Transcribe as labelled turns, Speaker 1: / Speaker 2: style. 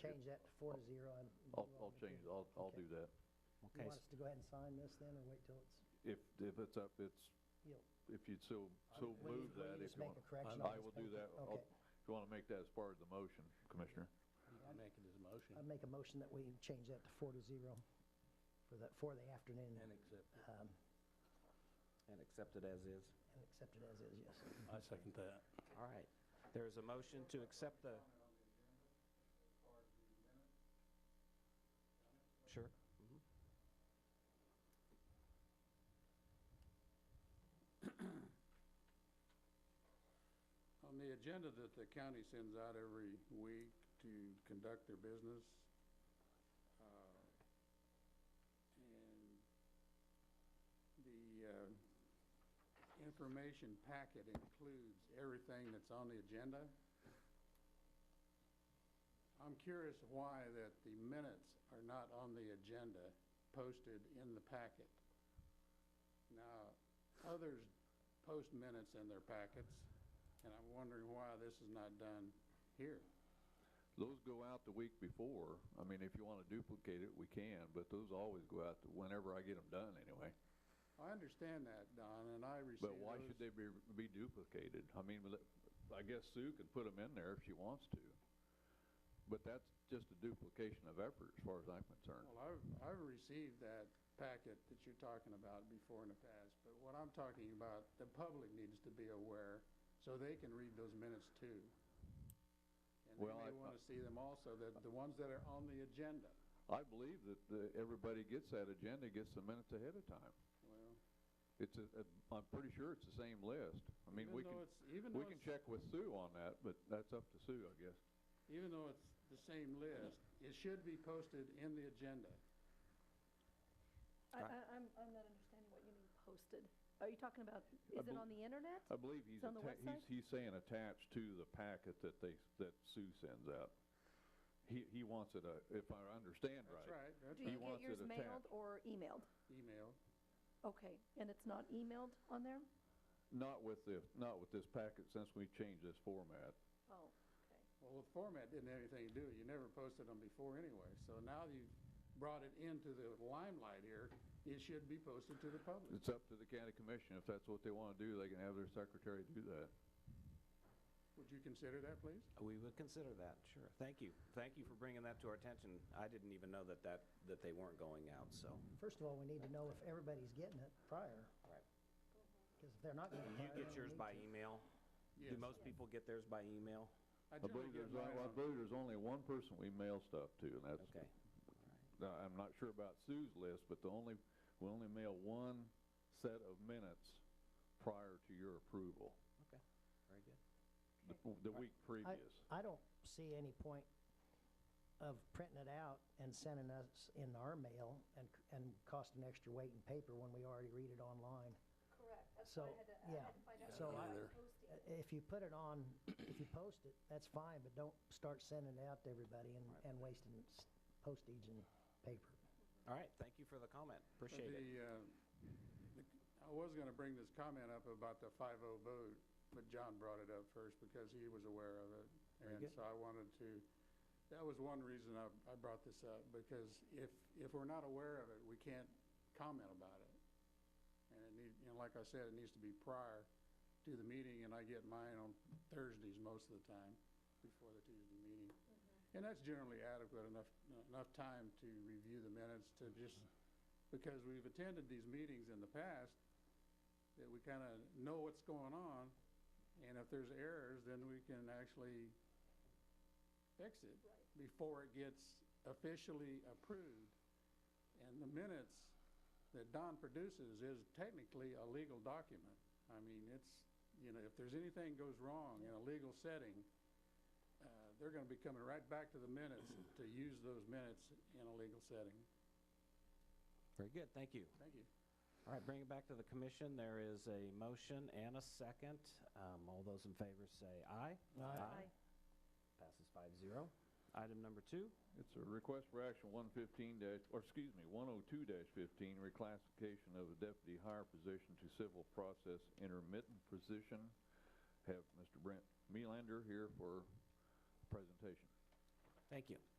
Speaker 1: change that to four to zero and. you
Speaker 2: I'll,
Speaker 1: want
Speaker 2: I'll
Speaker 1: me to-
Speaker 2: change, I'll, I'll do
Speaker 1: Okay.
Speaker 2: that.
Speaker 1: You
Speaker 3: Okay,
Speaker 1: want
Speaker 3: s-
Speaker 1: us to go ahead and sign this then, or wait till it's,
Speaker 2: If, if it's up, it's,
Speaker 1: you know?
Speaker 2: if you'd so, so
Speaker 1: when you-
Speaker 2: move
Speaker 1: when you
Speaker 2: that, if
Speaker 1: just
Speaker 2: you
Speaker 1: make
Speaker 2: want.
Speaker 1: a correction on
Speaker 2: I
Speaker 1: this
Speaker 2: will do
Speaker 1: paper.
Speaker 2: that. I'll-
Speaker 1: Okay,
Speaker 2: If you want to make that as part of the motion, Commissioner.
Speaker 4: You can make it as a motion
Speaker 1: I'd make a motion that we change that to four to zero for the, for the
Speaker 4: and
Speaker 1: afternoon,
Speaker 4: accept it.
Speaker 1: um,
Speaker 3: and accept it as is.
Speaker 1: and accept it as is, yes.
Speaker 4: I second that.
Speaker 3: All right. There is a motion to accept the... Sure. Mhm.
Speaker 5: On the agenda that the county sends out every week to conduct their business, uh, and the uh, information packet includes everything that's on the agenda. I'm curious why that the minutes are not on the agenda posted in the packet. Now, others post minutes in their packets, and I'm wondering why this is not done here.
Speaker 2: Those go out the week before. I mean, if you want to duplicate it, we can, but those always go out whenever I get them done anyway.
Speaker 5: I understand that, Don, and I receive
Speaker 2: But why should
Speaker 5: those-
Speaker 2: they be, be duplicated? I mean, let- I guess Sue can put them in there if she wants to. But that's just a duplication of effort as far as I'm concerned.
Speaker 5: Well, I've, I've received that packet that you're talking about before in the past, but what I'm talking about, the public needs to be aware, so they can read those minutes too. And they
Speaker 2: Well, I-
Speaker 5: may want to see them also, the, the ones that are on the agenda.
Speaker 2: I believe that the, everybody gets that agenda, gets the minutes ahead of time.
Speaker 5: Well,
Speaker 2: It's a, a, I'm pretty sure it's the same list. I mean,
Speaker 5: Even
Speaker 2: we
Speaker 5: though
Speaker 2: can,
Speaker 5: it's- even
Speaker 2: we
Speaker 5: though
Speaker 2: can
Speaker 5: it's-
Speaker 2: check with Sue on that, but that's up to Sue, I guess.
Speaker 5: even though it's the same list, it should be posted in the agenda.
Speaker 6: I,
Speaker 3: Right.
Speaker 6: I, I'm, I'm not understanding what you mean posted. Are you talking about, is it
Speaker 2: bel- uh,
Speaker 6: on the internet?
Speaker 2: I believe he's,
Speaker 6: It's on the
Speaker 2: atta- he's,
Speaker 6: website?
Speaker 2: he's saying attached to the packet that they, that Sue sends out. He, he wants it, uh, if I understand right.
Speaker 5: That's right, that's
Speaker 6: Do
Speaker 2: he
Speaker 6: you
Speaker 5: right,
Speaker 2: wants
Speaker 6: get yours
Speaker 2: it
Speaker 6: mailed
Speaker 2: attached.
Speaker 6: or emailed?
Speaker 5: email.
Speaker 6: Okay, and it's not emailed on there?
Speaker 2: Not with the, not with this packet since we changed this format.
Speaker 6: Oh, okay.
Speaker 5: Well, the format didn't have anything to do with it. You never posted them before anyway. So now you've brought it into the limelight here. It should be posted to the public.
Speaker 2: It's up to the county commission. If that's what they want to do, they can have their secretary do that.
Speaker 5: Would you consider that, please?
Speaker 3: We would consider that, sure. Thank you. Thank you for bringing that to our attention. I didn't even know that that, that they weren't going out, so.
Speaker 1: First of all, we need to know if everybody's getting it prior, because if they're not getting it
Speaker 3: You
Speaker 1: prior.
Speaker 3: get yours by e- email? Do
Speaker 5: Yes.
Speaker 3: most people get theirs by email?
Speaker 2: I
Speaker 5: I
Speaker 2: believe
Speaker 5: generally get
Speaker 2: there's,
Speaker 5: mine
Speaker 2: I
Speaker 5: on-
Speaker 2: believe there's only one person we mail stuff to, and that's,
Speaker 3: Okay.
Speaker 2: Now, I'm not sure about Sue's list, but the only, we only mail one set of minutes prior to your approval,
Speaker 3: Okay. Very good.
Speaker 2: the, the week
Speaker 1: I,
Speaker 2: previous.
Speaker 1: I don't see any point of printing it out and sending us in our mail and, c- and costing extra weight and paper when we already read it online.
Speaker 6: Correct,
Speaker 1: That's why I So, had to- I yeah. had to find out So if it I- was I- If you put it on, if you post it, that's fine, but don't start sending it out to everybody and, and wasting s- postage and paper.
Speaker 3: All right, thank you for the comment.
Speaker 5: but
Speaker 3: Appreciate it.
Speaker 5: the, uh, the- I was going to bring this comment up about the 5-0 vote, but John brought it up first because he was aware of it. And
Speaker 3: good.
Speaker 5: so I wanted to, that was one reason I, I brought this up, because if, if we're not aware of it, we can't comment about it. And it need, and like I said, it needs to be prior to the meeting, and I get mine on Thursdays most of the time, before the Tuesday meeting. And that's generally adequate enough, enough time to review the minutes to just, because we've attended these meetings in the past, that we kind of know what's going on, and if there's errors, then we can actually fix it before it gets officially approved. And the minutes that Don produces is technically a legal document. I mean, it's, you know, if there's anything goes wrong in a legal setting, uh, they're going to be coming right back to the minutes to use those minutes in a legal setting.
Speaker 3: Very good, thank you.
Speaker 5: Thank you.
Speaker 3: All right, bring it back to the commission. There is a motion and a second. Um, All those in favor say aye.
Speaker 1: Aye.
Speaker 6: Aye.
Speaker 3: Passes five zero. Item number two,
Speaker 2: It's a request for action one fifteen dash, or excuse me, one oh two dash fifteen, reclassification of a deputy higher position to civil process intermittent position. Have Mr. Brent Melander here for presentation.
Speaker 3: thank you.